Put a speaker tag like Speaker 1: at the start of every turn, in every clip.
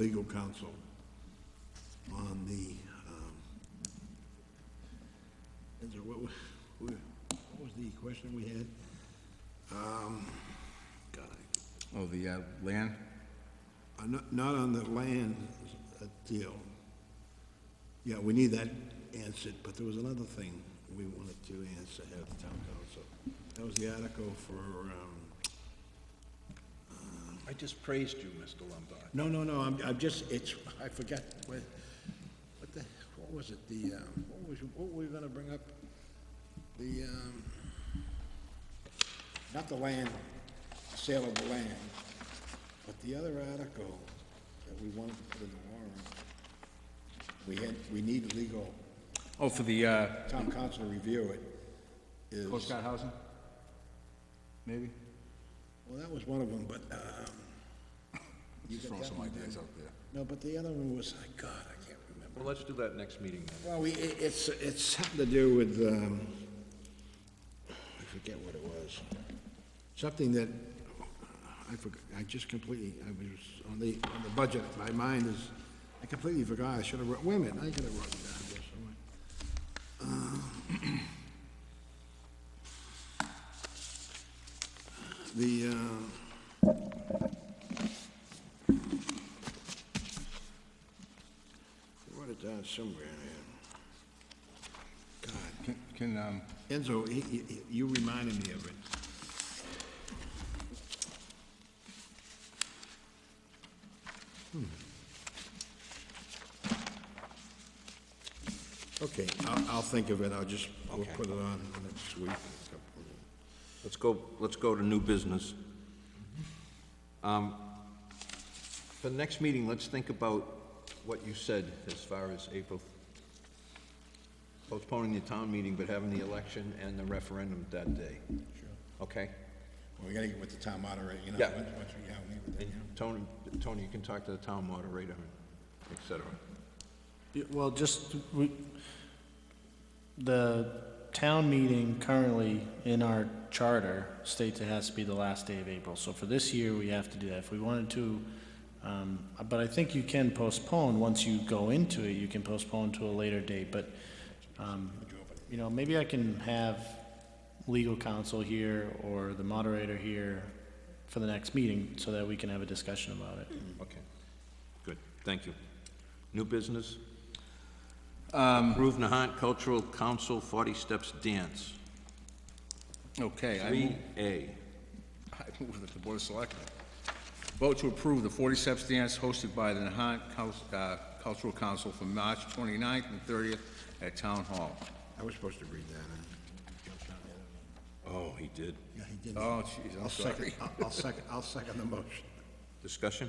Speaker 1: legal counsel on the, um, is there, what, wa- what was the question we had? Um, God, I-
Speaker 2: Oh, the uh, land?
Speaker 1: uh, not, not on the land uh, deal. Yeah, we need that answered, but there was another thing we wanted to answer at the town council. That was the article for, um, uh,
Speaker 3: I just praised you, Mr. Lombard.
Speaker 1: No, no, no, I'm, I'm just, it's, I forgot, what, what the, what was it, the, um, what was, what were we gonna bring up? The, um, not the land, sale of the land, but the other article that we wanted to put in the warrant. We had, we need legal,
Speaker 2: Oh, for the uh,
Speaker 1: town council to review it, is,
Speaker 2: Coast Guard housing? Maybe?
Speaker 1: well, that was one of them, but, um. you got
Speaker 2: Throw
Speaker 1: that
Speaker 2: some
Speaker 1: one
Speaker 2: ideas
Speaker 1: down.
Speaker 2: out there.
Speaker 1: No, but the other one was, I God, I can't remember.
Speaker 3: Well, let's do that next meeting then.
Speaker 1: Well, we, it- it's, it's something to do with, um, I forget what it was. Something that, I forgot, I just completely, I was, on the, on the budget, my mind is, I completely forgot, I should have wrote, wait a minute, I could have wrote it down here somewhere. Uh, The, um, I wrote it down somewhere in here. God.
Speaker 2: Can- Can, um,
Speaker 1: Enzo, he- he- he- you reminded me of it. Hmm. Okay, I'll, I'll think of it, I'll just, we'll
Speaker 3: Okay.
Speaker 1: put it on next week.
Speaker 3: Let's go, let's go to new business. Um, For the next meeting, let's think about what you said as far as April, postponing the town meeting, but having the election and the referendum that day. Sure. Okay?
Speaker 1: We gotta get with the town moderator, you know?
Speaker 3: Yeah.
Speaker 1: once- once we- yeah, we meet with them,
Speaker 3: And Tony, Tony, you can talk to the town moderator, et cetera.
Speaker 4: Yeah, Well, just, we, the town meeting currently in our charter states it has to be the last day of April. So for this year, we have to do that. If we wanted to, um, but I think you can postpone, once you go into it, you can postpone to a later date. But, um, you know, maybe I can have legal counsel here or the moderator here for the next meeting so that we can have a discussion about it.
Speaker 3: Okay, good, thank you. New business?
Speaker 2: Um,
Speaker 3: Approve Nahant Cultural Council Forty Steps Dance,
Speaker 2: okay, I
Speaker 3: three
Speaker 2: move-
Speaker 3: A.
Speaker 2: I move that the Board of Selectmen vote to approve the 40 Steps Dance hosted by the Nahant Cul- uh, Cultural Council for March 29th and 30th at Town Hall.
Speaker 1: yeah. I was supposed to read that, huh?
Speaker 3: Oh, he did.
Speaker 1: Yeah, he did.
Speaker 2: Oh, jeez, I'm
Speaker 1: I'll second,
Speaker 2: sorry.
Speaker 1: I'll- I'll second, I'll second the motion.
Speaker 3: Discussion?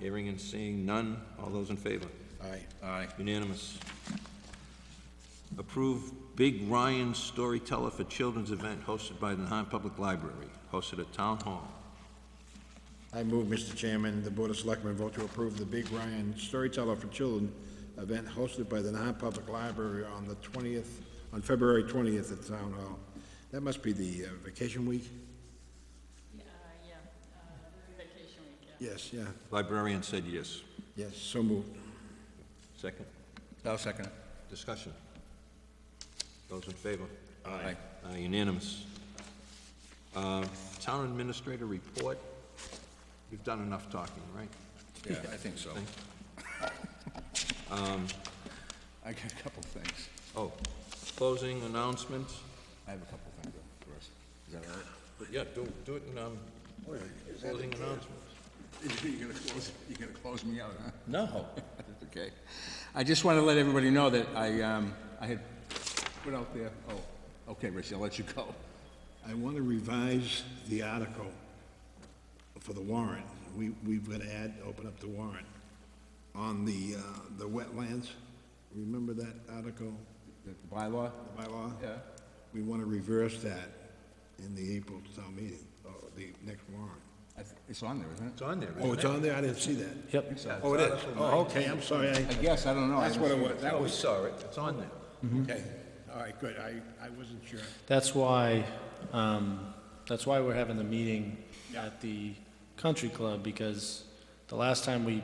Speaker 3: Hearing and seeing none. All those in favor?
Speaker 1: Aye.
Speaker 2: Aye.
Speaker 3: Unanimous. Approve Big Ryan Storyteller for Children's Event hosted by the Nahat Public Library, hosted at Town Hall.
Speaker 1: I move, Mr. Chairman, the Board of Selectmen vote to approve the Big Ryan Storyteller for Children event hosted by the non-public library on the 20th, on February 20th at Town Hall. That must be the uh, vacation week?
Speaker 5: Yeah, uh, yeah, uh, vacation week, yeah.
Speaker 1: Yes, yeah,
Speaker 3: Librarian said yes.
Speaker 1: yes, so moved.
Speaker 3: Second?
Speaker 2: I'll second it.
Speaker 3: Discussion? Those in favor?
Speaker 2: Aye.
Speaker 3: Uh, Unanimous. Uh, Town Administrator report. You've done enough talking, right?
Speaker 2: Yeah, I think so.
Speaker 3: Um,
Speaker 2: I got a couple things.
Speaker 3: Oh, closing announcements?
Speaker 2: I have a couple things for us. Is that all right?
Speaker 3: Yeah, do, do it in, um, closing announcements.
Speaker 2: You're gonna close, you're gonna close me out, huh?
Speaker 3: No.
Speaker 2: Okay. I just want to let everybody know that I, um, I had put out there, oh, okay, Richie, I'll let you go.
Speaker 1: I want to revise the article for the warrant. We, we've got to add, open up the warrant on the, uh, the wetlands. Remember that article,
Speaker 2: The bylaw?
Speaker 1: the bylaw?
Speaker 2: Yeah.
Speaker 1: We want to reverse that in the April town meeting, or the next warrant.
Speaker 2: I th- It's on there, isn't
Speaker 3: It's on there,
Speaker 1: Oh,
Speaker 3: isn't
Speaker 1: it's
Speaker 3: it?
Speaker 1: on there? I didn't see that.
Speaker 4: Yep.
Speaker 1: Oh, it is? Oh, okay, I'm sorry. I-
Speaker 2: it? I guess, I don't know. I
Speaker 1: That's what
Speaker 2: haven't
Speaker 1: it
Speaker 2: seen
Speaker 1: was. That
Speaker 3: Oh, we
Speaker 1: was,
Speaker 3: saw it, it's on there.
Speaker 1: okay. All right, good. I, I wasn't sure.
Speaker 4: That's why, um, that's why we're having the meeting at the country club, because the last time we